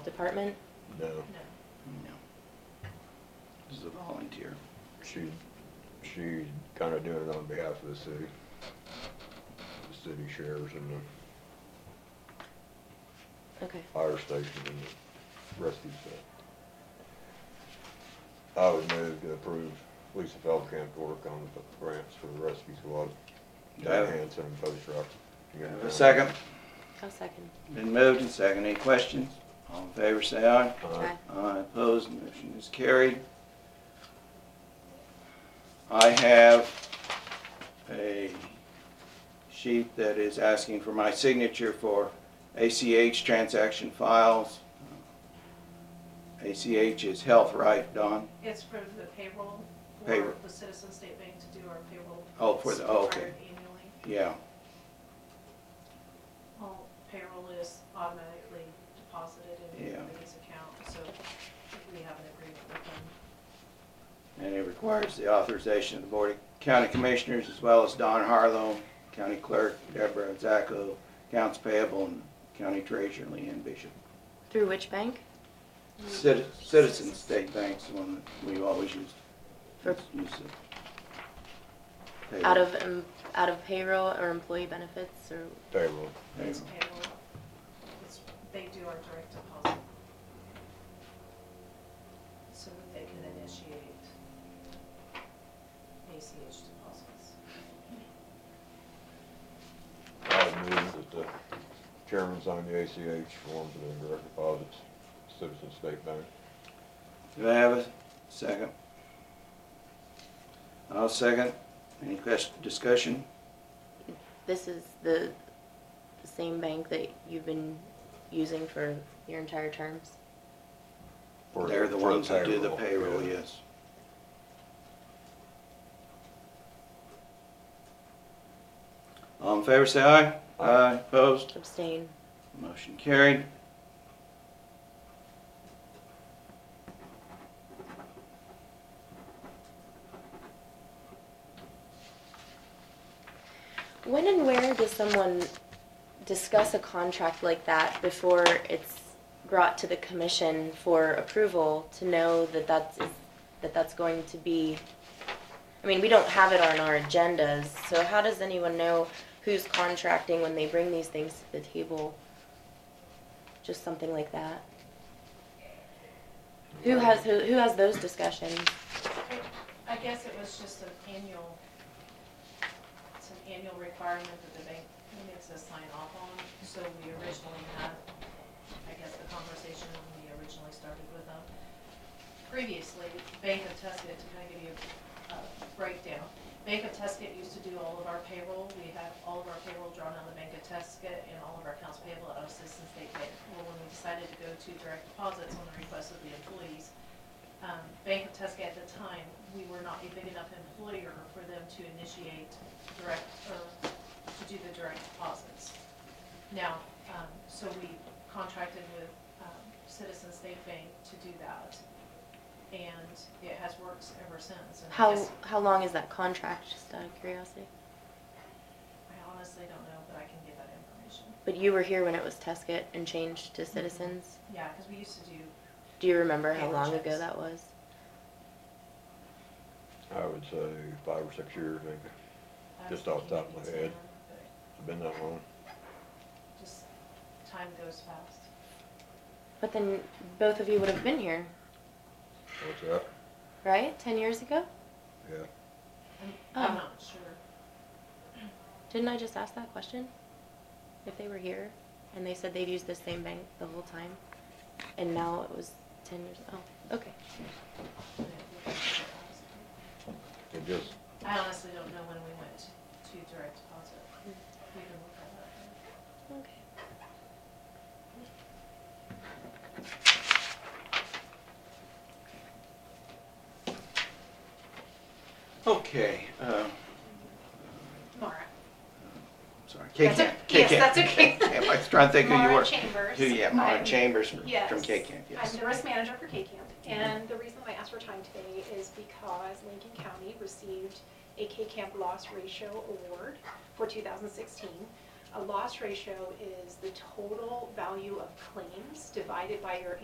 department? No, No. This is a volunteer. she, she's kinda doing it on behalf of the city. The city shares and the Okay, fire station and the rescue stuff. I would move to approve Lisa Feldkamp to work on the grants for the rescue squad, Diane Hanson and Post Rock. You got Have A second. I'll second. Been moved and seconded. Any questions? All in favor, say aye. Aye. Aye, opposed, motion is carried. I have a sheet that is asking for my signature for ACH transaction files. ACH is health, right, Don? It's for the payroll, Payroll. for the Citizen State Bank to do our payroll. Oh, for the, oh, okay, required Annually, yeah, all payroll is automatically deposited in Yeah. everybody's account, so we have an agreement with them. and it requires the authorization of the Board of County Commissioners as well as Don Harlow, County Clerk, Deborah Zacco, Accounts Payable, and County Treasurer Leanne Bishop. Through which bank? Citi- Citizen State Bank's the one that we always used. For- Used to pay Out of, um, out of payroll or employee benefits or, Payroll, pay- It's payroll, it's, they do our direct deposit. So that they can initiate ACH deposits. I would move that the chairman sign the ACH form for the direct deposits, Citizen State Bank. Do I have a second? I'll second. Any question, discussion? this is the the same bank that you've been using for your entire terms? for- They're the for ones that do the payroll, yeah. yes. All in favor, say aye. Aye. Opposed? Abstain. Motion carried. When and where does someone discuss a contract like that before it's brought to the commission for approval to know that that's, that that's going to be? I mean, we don't have it on our agendas, so how does anyone know who's contracting when they bring these things to the table? Just something like that? Who has, who, who has those discussions? I guess it was just an annual, it's an annual requirement that the bank makes us sign off on. So we originally had, I guess, the conversation when we originally started with them. Previously, Bank of Tuscan, to kind of give you a breakdown, Bank of Tuscan used to do all of our payroll. We had all of our payroll drawn on the Bank of Tuscan and all of our accounts payable out of Citizen State Bank. Well, when we decided to go to direct deposits on the request of the employees, um, Bank of Tuscan at the time, we were not a big enough employer for them to initiate direct, or to do the direct deposits. Now, um, so we contracted with um, Citizen State Bank to do that, and it has worked ever since. And I How, guess- how long is that contract, just out of curiosity? I honestly don't know, but I can get that information. But you were here when it was Tuscan and changed to Citizens? Mm-hmm. Yeah, because we used to do, Do you remember how Paper long checks. ago that was? I would say five or six years, maybe. I Just off the top of my head. can't remember, It's been that long. but Just, time goes fast. But then both of you would have been here, What's that? right? Ten years ago? Yeah. I'm- Oh. I'm not sure. Didn't I just ask that question? If they were here and they said they've used the same bank the whole time and now it was ten years, oh, okay. when it was- It just, I honestly don't know when we went to direct deposit. We can look that up. Okay. Okay, uh, Mara. sorry, That's K-CAM. o- yes, that's okay. I was trying to think who you Mara were. Chambers. Who, yeah, Mara I'm- Chambers from Yes. K-CAM, yes. I'm the risk manager for K-CAMP, and the reason why I asked for time today is because Lincoln County received a K-CAMP loss ratio award for 2016. a loss ratio is the total value of claims divided by your